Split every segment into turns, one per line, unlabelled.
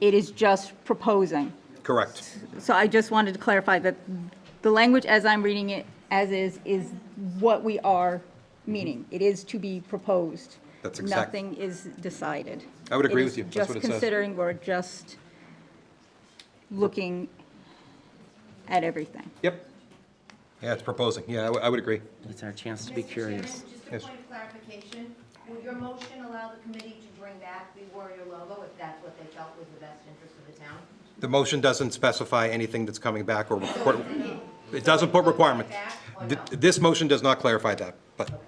It is just proposing.
Correct.
So I just wanted to clarify that the language as I'm reading it, as is, is what we are meaning. It is to be proposed.
That's exact-
Nothing is decided.
I would agree
It is
with you. That's what it says.
Just considering, we're just looking at everything.
Yep. Yeah, it's proposing. Yeah, I would- I would agree.
It's our chance to be
Mr.
curious.
Chairman,
Yes.
just a point of clarification. Will your motion allow the committee to bring back the Warrior logo if that's what they felt was the best interest of the town?
The motion doesn't specify anything that's coming back or requir- it doesn't put requirements. Th- This motion does not clarify that, but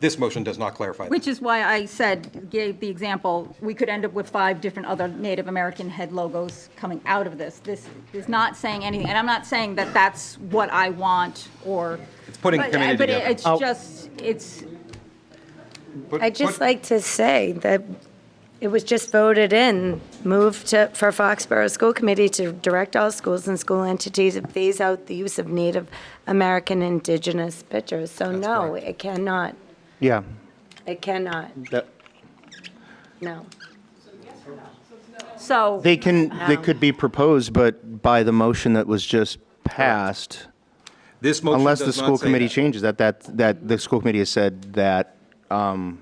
this motion does not clarify that.
Which is why I said, gave the example, we could end up with five different other Native American head logos coming out of this. This is not saying anything, and I'm not saying that that's what I want or.
It's putting
But- uh,
community
But
together.
it- it's just, it's,
Put-
I'd just
put-
like to say that it was just voted in, move to, for Foxborough School Committee to direct all schools and school entities to phase out the use of Native American indigenous pictures. So
That's
no,
correct.
it cannot,
Yeah,
it cannot,
that-
no.
so,
they can, they
Um,
could be proposed, but by the motion that was just passed,
This motion
unless the
does not
school
say
committee
that.
changes that, that, that the school committee has said that um,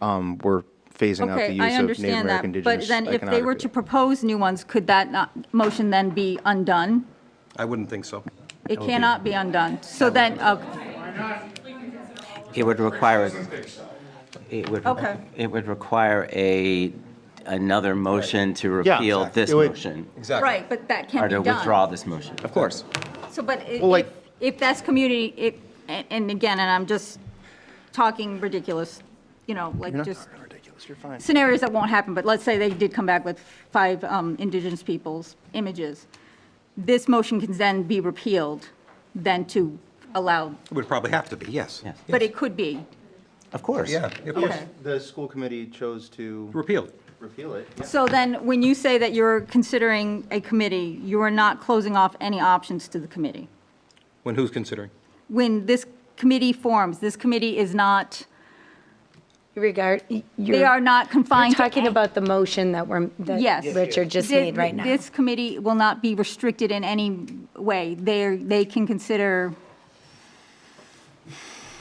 um, we're phasing out the
okay, I
use of Native
understand
American
that. But
indigenous
then if they were to
iconography.
propose new ones, could that not, motion then be undone?
I wouldn't think so.
It cannot be undone. So then, uh, okay,
It would require, it would,
Okay.
it would require a, another motion to
Yeah,
repeal
exactly.
this
It would-
motion,
Exactly.
right, but that can
or
be
to
done.
withdraw this motion.
Of course.
So, but i-
Well, like-
if, if that's community, if, and and again, and I'm just talking ridiculous, you know, like just
Ridiculous, you're fine.
scenarios that won't happen, but let's say they did come back with five um, indigenous peoples' images. This motion can then be repealed, then to allow,
It would probably have to be, yes.
Yes.
but it could be.
Of course.
Yeah, of course.
Okay.
The school committee chose to
Repealed.
repeal it.
So then, when you say that you're considering a committee, you are not closing off any options to the committee.
When who's considering?
When this committee forms, this committee is not,
Regard,
they are
you're,
not
you're
confined to
talking about the motion that we're, that
Yes.
Richard just
Thi-
made right now.
This committee will not be restricted in any way. They're, they can consider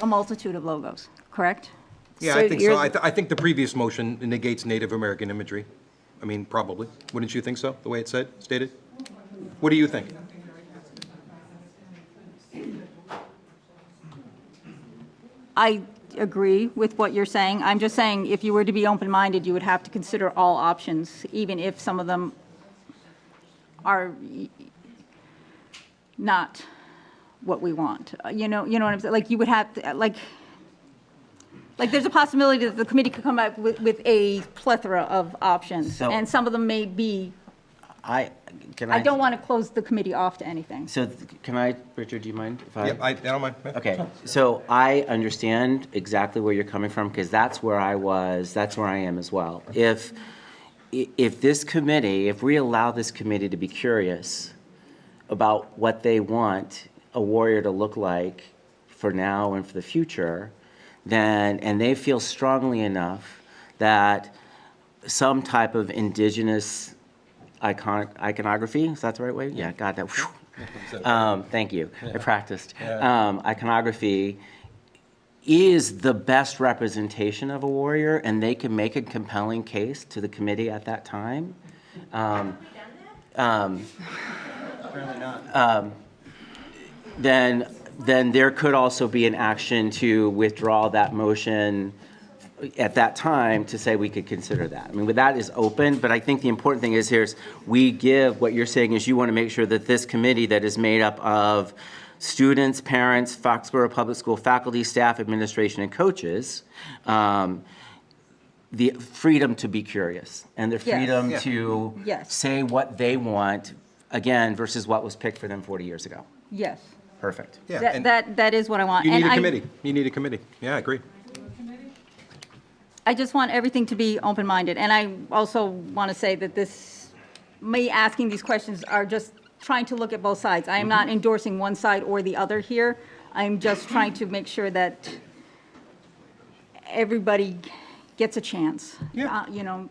a multitude of logos, correct?
Yeah,
So
I think so.
you're-
I, th- I think the previous motion negates Native American imagery. I mean, probably. Wouldn't you think so, the way it said, stated? What do you think?
I agree with what you're saying. I'm just saying, if you were to be open-minded, you would have to consider all options, even if some of them are not what we want. Uh, You know, you know what I'm saying? Like, you would have, to- like, like, there's a possibility that the committee could come up with, with a plethora of options,
So-
and some of them may be,
I, can I?
I don't want to close the committee off to anything.
So th- can I, Richard, do you mind if I?
Yeah, I, I don't mind. Yeah.
Okay, so I understand exactly where you're coming from, because that's where I was, that's where I am as well. If, i- if this committee, if we allow this committee to be curious about what they want a warrior to look like for now and for the future, then, and they feel strongly enough that some type of indigenous iconic, iconography, is that the right way? Yeah, got that. Whew. Um, thank you. I practiced. Um, iconography is the best representation of a warrior, and they can make a compelling case to the committee at that time. Um, um, um, then, then there could also be an action to withdraw that motion at that time to say we could consider that. I mean, but that is open, but I think the important thing is here is we give, what you're saying is you want to make sure that this committee that is made up of students, parents, Foxborough Public School faculty, staff, administration, and coaches, um, the freedom to be curious and the
Yes.
freedom
Yeah.
to
Yes.
say what they want, again, versus what was picked for them 40 years ago.
Yes.
Perfect.
Yeah,
That,
and
that that is what I want.
You
And
need a
I-
committee. You need a committee. Yeah, I agree.
I just want everything to be open-minded, and I also want to say that this, me asking these questions are just trying to look at both sides. I am not endorsing one side or the other here. I'm just trying to make sure that everybody gets a chance.
Yeah.
Uh, You know,